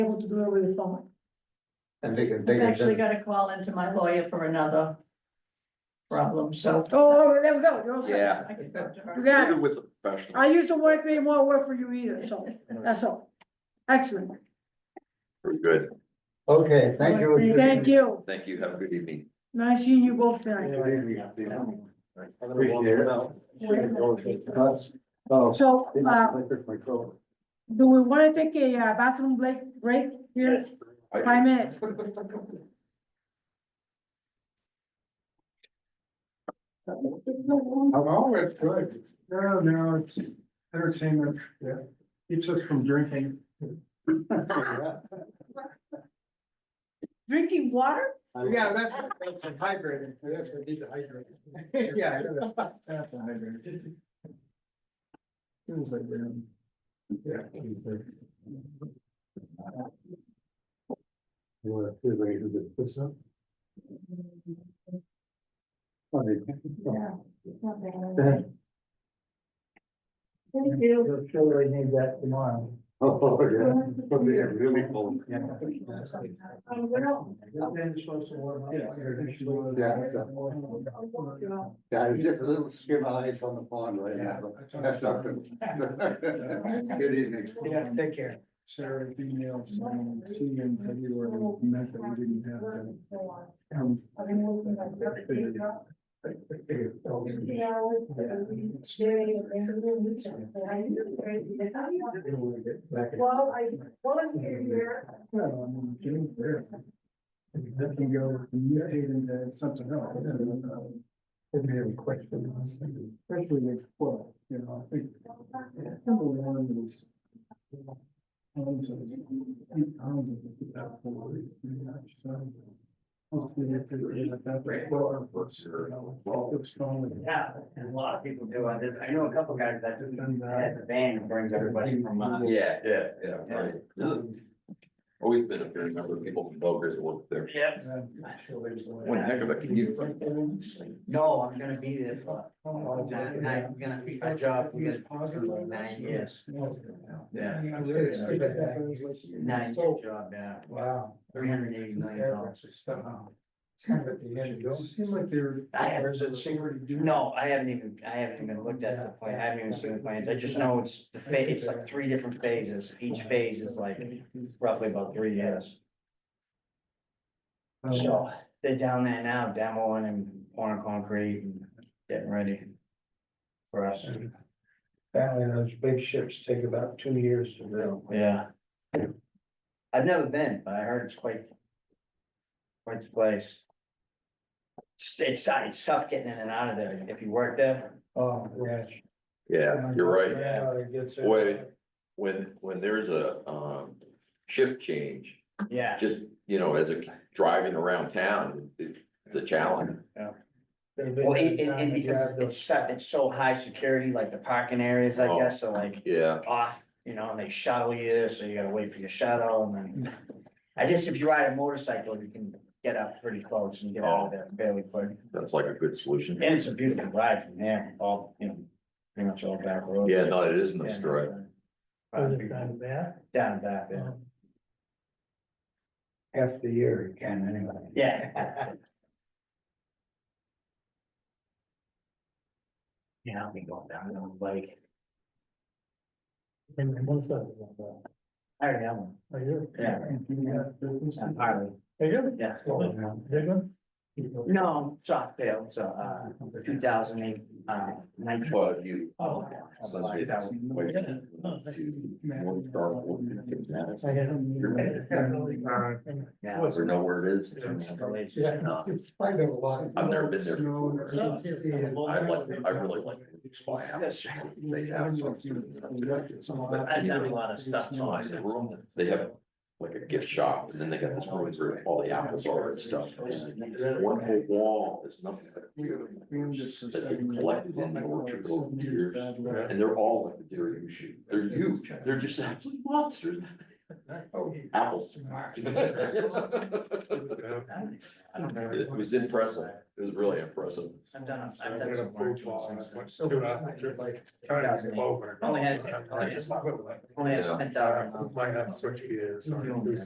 able to do it over the phone. And they can, they I've can, send- actually got to call into my lawyer for another problem, so. Oh, there we go, you're all set. Yeah. I can talk to You her. got it. With a professional. I used to work, they won't work for you either, so that's all. Excellent. Very good. okay, thank you. Thank you. Thank you. Have a good evening. Nice seeing you both tonight. Appreciate it. That's- Oh. So, uh, I took my coat. do we wanna take a uh, bathroom break, break here? Five minutes. Hello, it's good. No, no, it's entertainment, yeah, keeps us from drinking. Drinking water? Yeah, that's, that's hydrating, that's what need to hydrate. Yeah. I know that. That's a hydrating. Seems like we're. on- Yeah. You want to figure out this up? Thank you. You'll surely need that tomorrow. Oh, yeah, but they are really cold. Yeah. Yeah, so- Yeah, it's just a little skim of ice on the pond right now, but that's not good. Good evening. Yeah, take care. Sarah, female, see you in February, meant that we didn't have to. um, Well, I volunteer here. Well, I mean, getting there. That can go mutating into something else. and, uh, If you have a question, especially with twelve, you know, I think. Number one is. Pounds of, eight pounds of it without worry, you know, so, Hopefully if they're at that rate, well, first, you know, well, it's strong. Yeah, and a lot of people do. I just, I know a couple guys that do, that's a van that brings everybody from, uh, Yeah, yeah, yeah. right. Always been a fair number of people from Bogus that work there. yeah. One heck of a commute. No, I'm gonna be there for, all day. And I'm gonna be my job, we got positive nine years. Yeah. Nine year job now, Wow. three hundred eighty million dollars. It's kind of at the end, it don't seem like they're. I have- There's a secret. No, I haven't even, I haven't even looked at the plan, I haven't even seen the plans, I just know it's the phase, it's like three different phases, each phase is like roughly about three years. So they're down there now demoing and pouring concrete and getting ready for us. Apparently those big ships take about two years to build. Yeah. I've never been, but I heard it's quite. Quite the place. It's, it's, it's tough getting in and out of there. If you work there, Oh, yeah. Yeah, you're right. Yeah, it gets- Boy. When, when there's a, um, shift change, yeah, just, you know, as a driving around town, it- it's a challenge. well, and, and- and because it's set, it's so high security, like the parking areas, Oh. I guess, so like Yeah, off, you know, and they shuttle you, so you gotta wait for your shuttle and then. I guess if you ride a motorcycle, you can get up pretty close and get out of there fairly quick. that's like a good solution. And it's a beautiful ride from there, all, you know, pretty much all back roads. Yeah, no, it is Yeah, Mr. Right. Down and back, yeah. Half the year you can anyway. Yeah. Yeah, I'll be going down on the bike. And what's that? I already have one. Are Oh, you? uh, Yeah. I'm Harley. Are Oh, you? Yeah. Big one? No, shot fail, so, uh, two thousand eight, uh, nineteen. Well, if you. uh, Oh. Sunday, that's way to- Morning Star, Morning Kids, I don't need it. Yeah. I don't know where it is. It's- Yeah, No. it's probably a lot. I've never been there Snow and- before. I like, I really like. Yes. They have some. But I've done a lot of stuff, so I- Nice room. They have like a gift shop and then they got this room where all the apples are and stuff. And One whole wall is nothing but. pears That they collected in the orchard over the years. And they're all like the deer you shoot. They're huge. They're just absolute monsters. Oh. Apples. It was impressive. It was really impressive. I've done, I've done some Dude, I think you're like, trying to get over. Only had- I just love it. Only has Yeah. ten thousand. Mm-hmm. Might have switch gears. or-